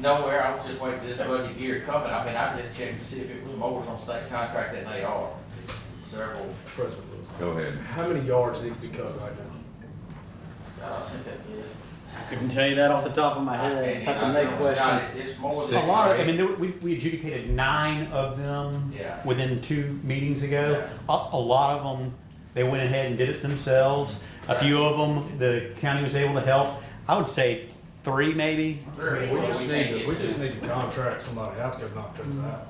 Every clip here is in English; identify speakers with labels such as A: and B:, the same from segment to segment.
A: nowhere, I was just waiting for this budget year coming, I mean, I just checked to see if it was mowers on state contract, and they are, it's several,
B: President Wilson.
C: Go ahead.
B: How many yards need to be cut right now?
A: uh, I sent that, yes.
D: I couldn't tell you that off the top of my head.
A: And
D: That's
A: I
D: a
A: said,
D: big question.
A: "Scott, It's more
E: A
A: than.
E: lot of, I mean, there- we, we adjudicated nine of them
A: Yeah.
E: within two meetings ago. A,
A: Yeah.
E: a lot of them, they went ahead and did it themselves. A few of them, the county was able to help. I would say three maybe.
A: Very
B: We
A: little
B: just
A: can't
B: need to,
A: get
B: we just
A: to.
B: need to contract somebody out to go knock those out.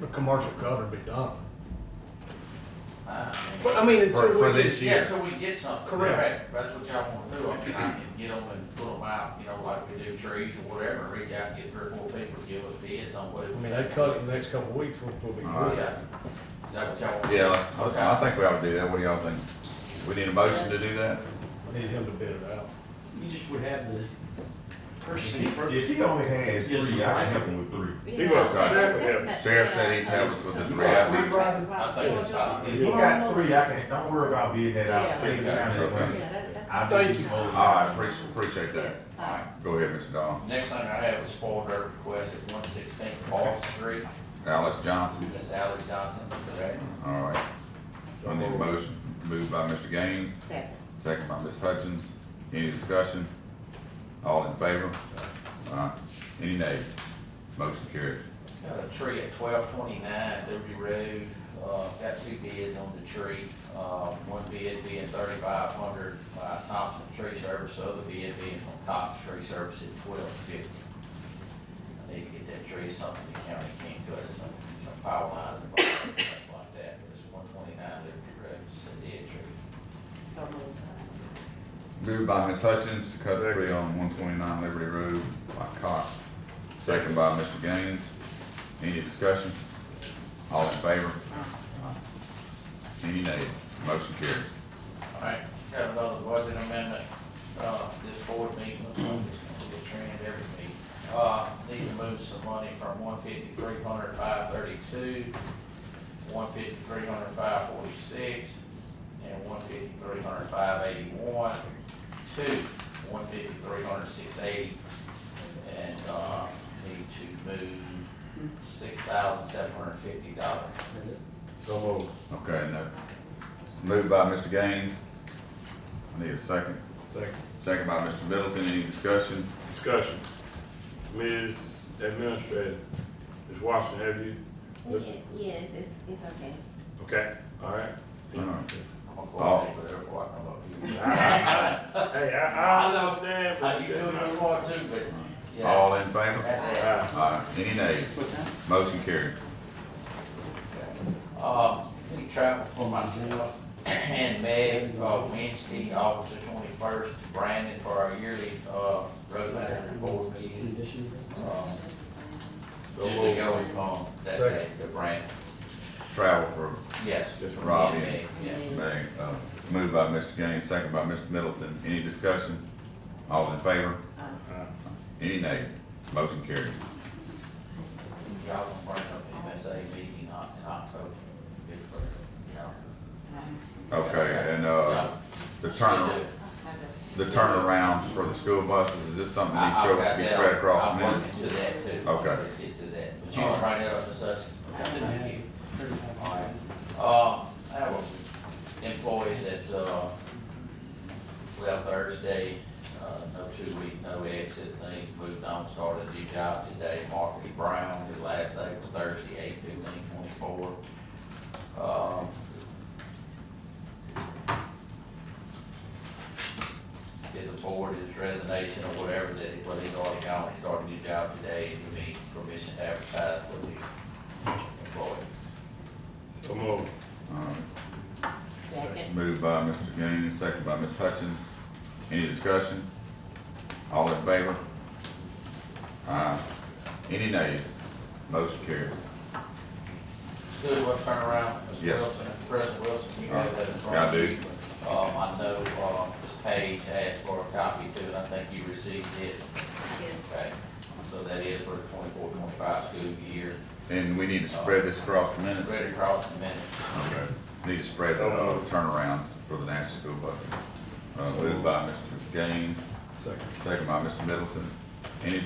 B: The commercial cut would be done.
A: I mean,
B: But I mean,
C: For-
B: until
C: for
B: we
C: this
B: can-
A: Uh, Yeah,
C: year.
A: until we get something,
B: Correct.
A: correct, that's what y'all wanna do, I mean, I can get them and pull them out, you know, like we do trees or whatever, reach out and get three or four people to give us bids on what it
B: I
A: would
B: mean,
A: take.
B: they cut it in the next couple of weeks, we'll, we'll be
C: All
B: good.
A: Yeah, is that what y'all want?
C: Yeah,
A: Okay.
C: I- I think we ought to do that. What do y'all think? We need a motion to do that?
B: I need him to bid it out.
D: You just would have the purchasing.
F: If he only has three, I can help him with three.
C: He worked on it.
G: Sheriff,
C: Sheriff said he'd help us with this reality.
A: I think it's
G: Yeah,
A: time.
F: If he got three, I can, don't worry about being that out, save the county that money.
G: that, that.
F: I
B: Thank
F: think
B: you.
F: he's
C: All
F: holding
C: right, appreciate, appreciate that. Go ahead, Mr. Don.
A: Next thing I have is for her request at one sixteen Fourth Street,
C: Alice Johnson.
A: Miss Alice Johnson, correct?
C: All right. I need a motion. Moved by Mr. Gaines,
G: Second.
C: second by Ms. Hutchins. Any discussion? All in favor? All right. Any nays? Motion carries.
A: Got a tree at twelve twenty-nine Liberty Road, uh, got two bids on the tree, uh, one bid being thirty-five hundred by Thompson Tree Service, the other bid being from Thompson Tree Service at twelve fifty. I need to get that tree, something the county can't cut, some, some power lines and stuff like that, but it's one twenty-nine Liberty Road, it's a dead tree.
G: So moved.
C: Moved by Ms. Hutchins to cut three on one twenty-nine Liberty Road by Cox, second by Mr. Gaines. Any discussion? All in favor? Any nays? Motion carries.
A: All right, got another budget amendment, uh, this board meeting, we're gonna get trained every meeting. Uh, need to move some money from one fifty-three hundred five thirty-two, one fifty-three hundred five forty-six, and one fifty-three hundred five eighty-one, to one fifty-three hundred six eighty. And, uh, need to move six thousand seven hundred fifty dollars.
B: So moved.
C: Okay, no. Moved by Mr. Gaines. I need a second.
B: Second.
C: Second by Mr. Middleton. Any discussion?
H: Discussion. Ms. Administrator, Ms. Washington, have you?
G: Yes, it's, it's okay.
H: Okay, all right.
A: I'm
C: All right.
A: gonna go ahead and go over what
H: I-
A: I'm up
H: I- I- Hey, I, I understand,
A: here. Uh,
H: but.
A: You do what you want to, but, yeah.
C: All in favor?
H: Alright.
C: All right. Any nays?
D: What's that?
C: Motion carries.
A: Uh, we travel for myself and Meg, uh, Wednesday, August the twenty-first, to Brandon for our yearly, uh, road manager board meeting. Um, Just
H: So
A: to
H: moved.
A: go, um, that
B: Second.
A: day, to Brandon,
C: Travel for
A: yes.
H: Just
A: me and
C: Robbie.
A: Meg, Yeah.
C: Thank, uh, moved by Mr. Gaines, second by Mr. Middleton. Any discussion? All in favor? Any nays? Motion carries.
A: Y'all gonna bring up MSA meeting in Oc- in October. Good for y'all.
G: um,
C: Okay, and, uh, the turn, the turnaround for the school buses, is this something that needs
A: I- I've
C: to
A: got
C: be
A: that.
C: spread across
A: I'll
C: minutes?
A: work into that too.
C: Okay.
A: Let's get to that, but you can bring that up to such. Thank you. Alright,
D: Alright.
A: uh, I have an employee that, uh, left Thursday, uh, no two week, no exit thing, moved on, started a new job today, Marcus Brown, his last day was Thursday, eight fifteen twenty-four. Um, did the board his resignation or whatever, that, well, he's already gone, he started a new job today, and he needs permission to advertise for the employee.
H: So moved.
C: All right.
G: Second.
C: Moved by Mr. Gaines, second by Ms. Hutchins. Any discussion? All in favor? Uh, any nays? Motion carries.
A: Good, we'll turn around. Mr.
C: Yes.
A: Wilson, President Wilson, you have that in front
C: Yeah, I
A: of
C: do.
A: you. Um, I know, uh, Paige asked for a copy too, and I think you received it, okay? So that is for the 24-25 school year,
C: And we need to spread this across the minutes?
A: ready across the minute.
C: Okay, need to spread the uh, turnarounds for the national school buses. Uh, moved by Mr. Gaines,
B: Second.
C: second by Mr. Middleton.